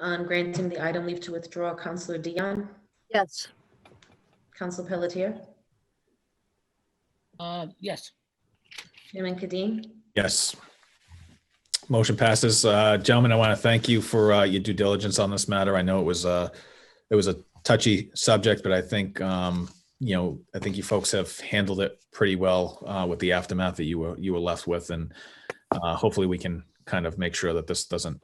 on Um, granting the item leave to withdraw, Counselor Dion, Yes. Counsel Pelletier, Uh, yes, Chairman Kadim, Yes. Motion passes. Uh, Gentlemen, I want to thank you for uh, your due diligence on this matter. I know it was, uh, it was a touchy subject, but I think, um, you know, I think you folks have handled it pretty well uh, with the aftermath that you were, you were left with. And uh, hopefully we can kind of make sure that this doesn't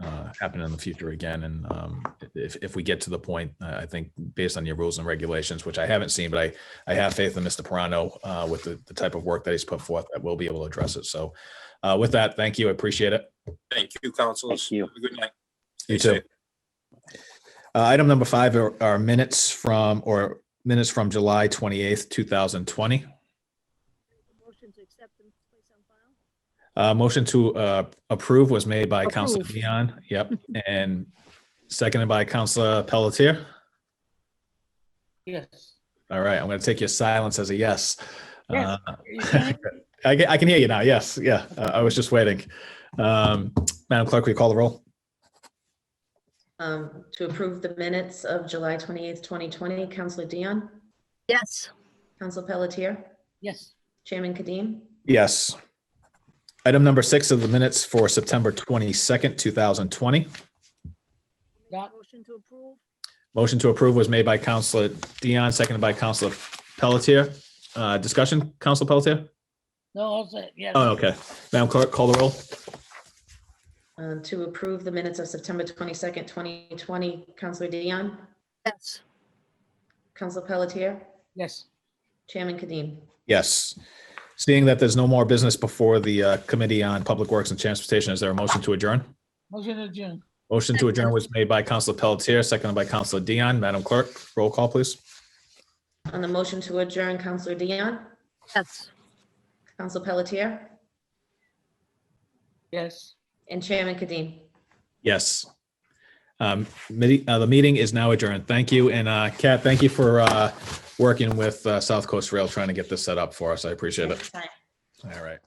uh, happen in the future again. And um, if, if we get to the point, uh, I think based on your rules and regulations, which I haven't seen, but I, I have faith in Mr. Pirano uh, with the, the type of work that he's put forth, that we'll be able to address it. So uh, With that, thank you. I appreciate it. Thank you, councilors. Thank you. Have a Good night. You Stay too. Uh, Item number five are are minutes from, or minutes from July 28th, 2020. Motion to accept and place on file? Uh, Motion to uh, approve was made by Counselor Approve. Dion. Yep. And seconded by Counselor Pelletier. yes. All right, I'm going to take your silence as a yes. Yes. Uh, I ca- I can hear you now. Yes, yeah. Uh, I was just waiting. Um, Madam Clerk, will you call the roll? um, to approve the minutes of July 28th, 2020, Counselor Dion, Yes. Counsel Pelletier, Yes, Chairman Kadim, Yes. Item number six of the minutes for September 22nd, 2020. Make Dot. a Motion to approve? Motion to approve was made by Counselor Dion, seconded by Counselor Pelletier. Uh, Discussion, Counselor Pelletier? no, I'll say, yes, Oh, okay. Madam Clerk, call the roll. um, to approve the minutes of September 22nd, 2020, Counselor Dion, Yes. Counsel Pelletier, yes, Chairman Kadim. Yes. Seeing that there's no more business before the uh, Committee on Public Works and Transportation, is there a motion to adjourn? motion adjourned, Motion to adjourn was made by Counselor Pelletier, seconded by Counselor Dion. Madam Clerk, roll call, please. On the motion to adjourn, Counselor Dion, Yes. Counsel Pelletier, yes. and Chairman Kadim. Yes. Um, midi- uh, The meeting is now adjourned. Thank you. And uh, Kat, thank you for uh, working with uh, South Coast Rail, trying to get this set up for us. I appreciate it. All right.